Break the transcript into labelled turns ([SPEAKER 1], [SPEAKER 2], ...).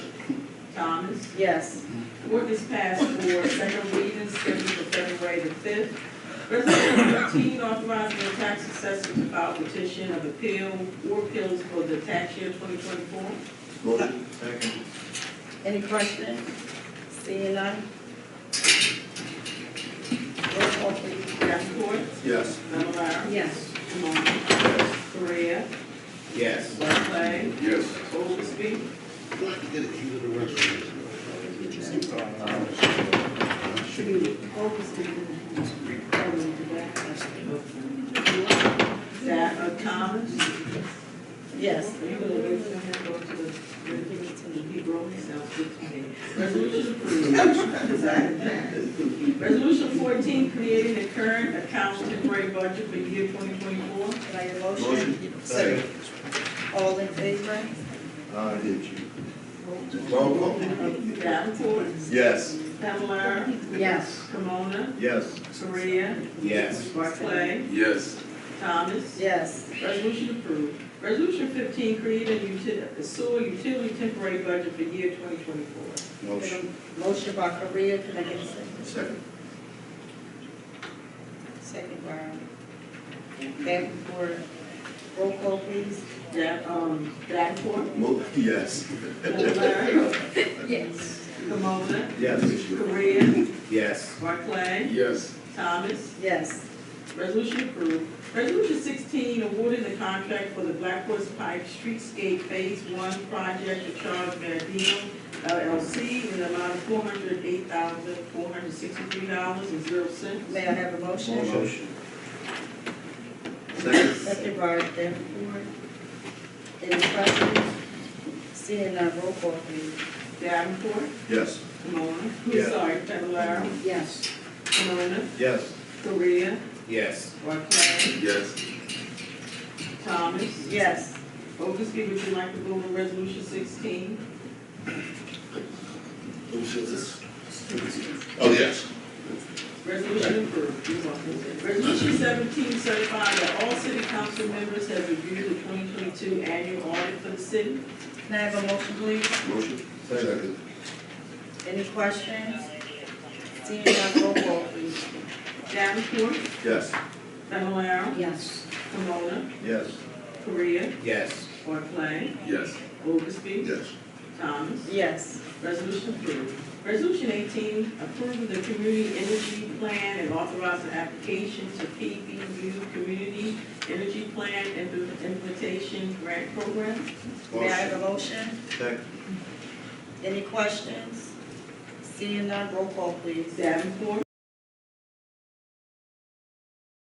[SPEAKER 1] Thomas.
[SPEAKER 2] Yes.
[SPEAKER 1] Ordinance passed for second reading scheduled for February the fifth. Resolution thirteen, authorizing the tax assessor to file petition of appeal or appeals for the tax year twenty twenty-four.
[SPEAKER 3] Motion. Second.
[SPEAKER 2] Any questions? Seeing none? Roll call please.
[SPEAKER 1] Davenport,
[SPEAKER 3] Yes.
[SPEAKER 1] Fennelara,
[SPEAKER 2] Yes.
[SPEAKER 1] Camona,
[SPEAKER 3] Yes.
[SPEAKER 1] Correa,
[SPEAKER 3] Yes.
[SPEAKER 1] Barclay,
[SPEAKER 3] Yes.
[SPEAKER 1] Oldesty,
[SPEAKER 2] Should be focused
[SPEAKER 1] that, uh, Thomas.
[SPEAKER 2] Yes.
[SPEAKER 1] Are you gonna wait for him to go to the, he wrote himself to me. Resolution approved. Resolution fourteen, creating the current accounts temporary budget for year twenty twenty-four.
[SPEAKER 2] Can I get a motion?
[SPEAKER 3] Motion. Second.
[SPEAKER 2] All in favor?
[SPEAKER 3] I did you. Roll call.
[SPEAKER 1] Davenport,
[SPEAKER 3] Yes.
[SPEAKER 1] Fennelara,
[SPEAKER 2] Yes.
[SPEAKER 1] Camona,
[SPEAKER 3] Yes.
[SPEAKER 1] Korea,
[SPEAKER 3] Yes.
[SPEAKER 1] Barclay,
[SPEAKER 3] Yes.
[SPEAKER 1] Thomas.
[SPEAKER 2] Yes.
[SPEAKER 1] Resolution approved. Resolution fifteen, creating utility, sewer utility temporary budget for year twenty twenty-four.
[SPEAKER 3] Motion.
[SPEAKER 2] Motion by Korea, can I get a second?
[SPEAKER 3] Second.
[SPEAKER 2] Second by Davenport. Roll call please.
[SPEAKER 1] Da, um, Davenport,
[SPEAKER 3] Mo, yes.
[SPEAKER 1] Fennelara,
[SPEAKER 2] Yes.
[SPEAKER 1] Camona,
[SPEAKER 3] Yes.
[SPEAKER 1] Korea,
[SPEAKER 3] Yes.
[SPEAKER 1] Barclay,
[SPEAKER 3] Yes.
[SPEAKER 1] Thomas.
[SPEAKER 2] Yes.
[SPEAKER 1] Resolution approved. Resolution sixteen, awarding the contract for the Black Horse Pike Streetscape Phase One project to Charles Badino LLC in the amount of four hundred eight thousand, four hundred sixty-three dollars and zero cents.
[SPEAKER 2] May I have a motion?
[SPEAKER 3] Motion. Second.
[SPEAKER 2] Second by Davenport. Any questions? Seeing none, roll call please.
[SPEAKER 1] Davenport,
[SPEAKER 3] Yes.
[SPEAKER 1] Camona,
[SPEAKER 3] Yeah.
[SPEAKER 1] I'm sorry, Fennelara,
[SPEAKER 2] Yes.
[SPEAKER 1] Camona,
[SPEAKER 3] Yes.
[SPEAKER 1] Korea,
[SPEAKER 3] Yes.
[SPEAKER 1] Barclay,
[SPEAKER 3] Yes.
[SPEAKER 1] Thomas.
[SPEAKER 2] Yes.
[SPEAKER 1] Oglesby, would you like to go over resolution sixteen?
[SPEAKER 3] Oh, yes.
[SPEAKER 1] Resolution approved. You're welcome. Resolution seventeen, certifying that all city council members have reviewed the twenty twenty-two annual audit for the city.
[SPEAKER 2] Can I have a motion please?
[SPEAKER 3] Motion. Second.
[SPEAKER 2] Any questions? Seeing none, roll call please.
[SPEAKER 1] Davenport,
[SPEAKER 3] Yes.
[SPEAKER 1] Fennelara,
[SPEAKER 2] Yes.
[SPEAKER 1] Camona,
[SPEAKER 3] Yes.
[SPEAKER 1] Korea,
[SPEAKER 3] Yes.
[SPEAKER 1] Barclay,
[SPEAKER 3] Yes.
[SPEAKER 1] Oglesby,
[SPEAKER 3] Yes.
[SPEAKER 1] Thomas.
[SPEAKER 2] Yes.
[SPEAKER 1] Resolution approved. Resolution eighteen, approving the community energy plan and authorizing application to PBU Community Energy Plan Implement- Implementation Grant Program.
[SPEAKER 2] May I have a motion?
[SPEAKER 3] Second.
[SPEAKER 2] Any questions? Seeing none, roll call please.
[SPEAKER 1] Davenport,